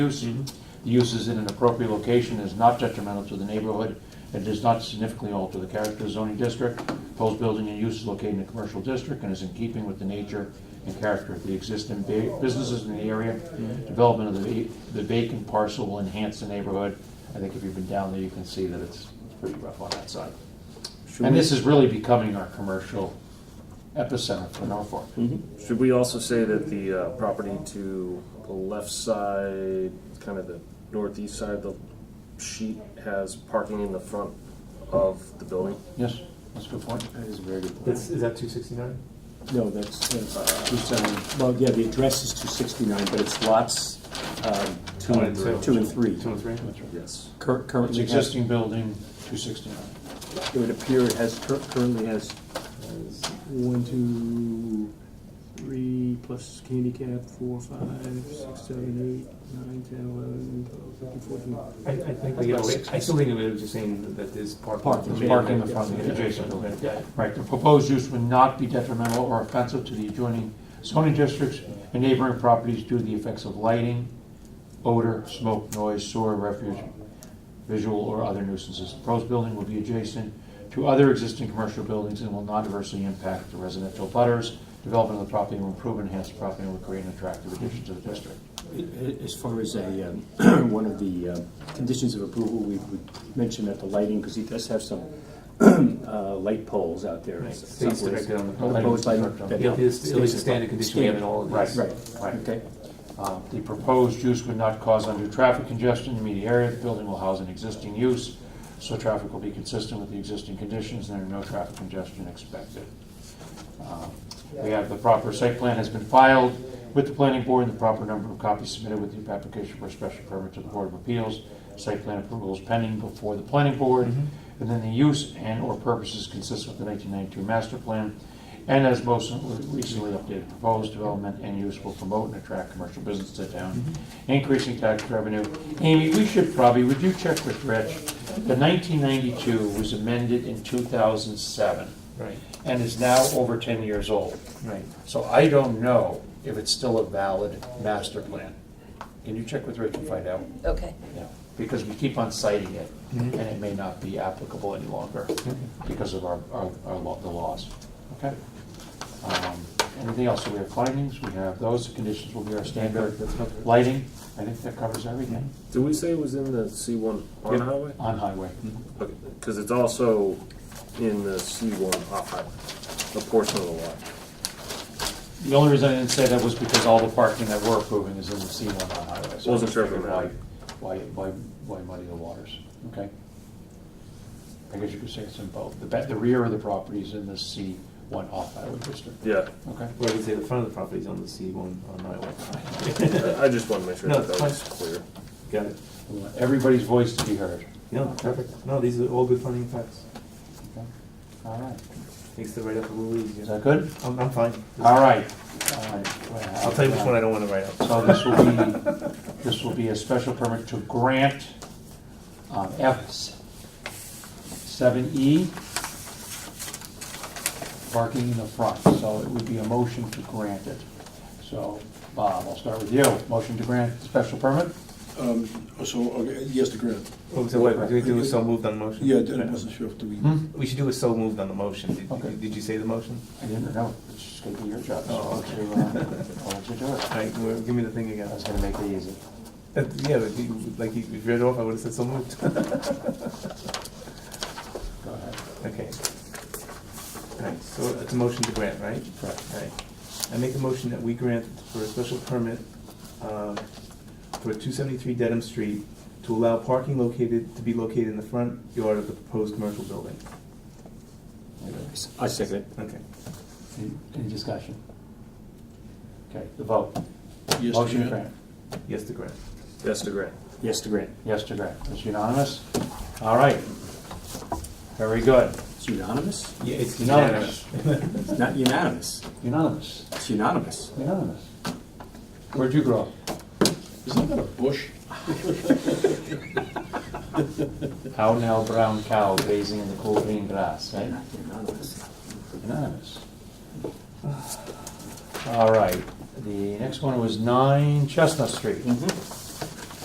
use, the use is in an appropriate location, is not detrimental to the neighborhood, and does not significantly alter the character of the zoning district. Proposed building and use is located in a commercial district and is in keeping with the nature and character of the existing ba- businesses in the area. Development of the va- the vacant parcel will enhance the neighborhood. I think if you've been down there, you can see that it's pretty rough on that side. Should And we- this is really becoming our commercial epicenter for Norfolk. Should we also say that the uh, property to the left side, kind of the northeast side of the sheet, has parking in the front of the building? Yes, that's a good point. That is a very good That's, is that two sixty-nine? No, that's, Uh, that's, Two seven, well, yeah, the address is two sixty-nine, but it's lots, um, two One and, and two. two and three. Two and three? that's right. Yes. Cur- It's Currently has, existing building, two sixty-nine. it would appear it has, cur- currently has one, two, three, plus handicap, four, five, six, seven, eight, nine, ten, eleven, twelve, thirteen, fourteen. I, I think we get away, I still think we were just saying that there's parking. Parking. There's parking in the front of the adjacent building. Right, the proposed use would not be detrimental or offensive to the adjoining zoning districts and neighboring properties due to the effects of lighting, odor, smoke, noise, soil, refuge, visual or other nuisances. The Proposed building will be adjacent to other existing commercial buildings and will not adversely impact the residential butters. Development of the property will improve and enhance the property and will create an attractive addition to the district. As far as a, um, one of the um, conditions of approval, we would mention that the lighting, because he does have some uh, light poles out there. Right, stays directed on the pole. Proposed lighting. that It is, it is a standard condition we have in Standard. all of these. Right, Right. okay. Um, The proposed use would not cause undue traffic congestion in the immediate area. The building will house an existing use, so traffic will be consistent with the existing conditions, and there are no traffic congestion expected. Um, We have the proper site plan has been filed with the planning board, and the proper number of copies submitted with the application for a special permit to the Board of Appeals. Site plan approval is pending before the planning board, and then the use and/or purposes consist with the 1992 master plan. And as most recently updated, proposed development and use will promote and attract commercial business to town, increasing tax revenue. Amy, we should probably, would you check with Rich? The 1992 was amended in 2007 Right, and is now over 10 years old. right. So I don't know if it's still a valid master plan. Can you check with Rich and find out? Okay. Yeah, Mm-hmm. Because we keep on citing it, and it may not be applicable any longer because of our, our, our law- the laws. Mm-hmm. Okay? Um, Anything else? So we have findings, we have those, the conditions will be our standard. Lighting, I think that covers everything Did we say it was in the C1 on Yep. highway? on highway. Because it's also in the C1 off highway, a portion of the lot. The only reason I didn't say that was because all the parking that we're approving is in the C one on highway. so I Wasn't sure if it figured why- mattered. Why, why, why muddy the waters? Okay? I guess you could say it's in both. The, ba- the rear of the property is in the C one off highway district. Yeah, Okay? Well, we say the front of the property is on the C one on highway. I just wanted to make sure No, that that was it's clear. Got it. We want Everybody's voice to be heard. No, perfect. No, these are all good finding facts. Okay. All right. Makes the write-up a little Is easier. that good? I'm, I'm fine. All right. I'll tell you which one I don't wanna write up. So this will be, this will be a special permit to grant um, F seven E parking in the front, so it would be a motion to grant it. So, Bob, I'll start with you. Motion to grant the special permit? Um, So, okay, yes, to grant. Oh, So what, do we do a so moved on motion? Yeah, I wasn't sure if do we, Hmm? We should do a so moved on the motion. Okay. Did, did you say the motion? I didn't know. It's just gonna be your job. so I'll Oh, let you, uh, I'll let you do it. All right, well, give me the thing again. I was gonna make it easy. Uh, Yeah, like you, like you read it off, I would have said so moved. Go ahead. Okay. Right, so it's a motion to grant, right? Correct. Right. I make a motion that we grant for a special permit um, for two seventy-three Dedham Street to allow parking located, to be located in the front yard of the proposed commercial building. I second it. Okay. Any- Any discussion? Okay, the vote. yes, to Motion to grant. grant. Yes to grant. Yes, to grant. Yes to grant. Yes to grant. It's unanimous? All right. Very good. It's unanimous? Yeah, it's Unanimous. It's not unanimous. Unanimous. It's unanimous. Unanimous. Where'd you grow up? Isn't that a bush? Cow now brown cow grazing in the cool green grass, right? Unanimous. Unanimous. All right, the next one was nine Chestnut Street.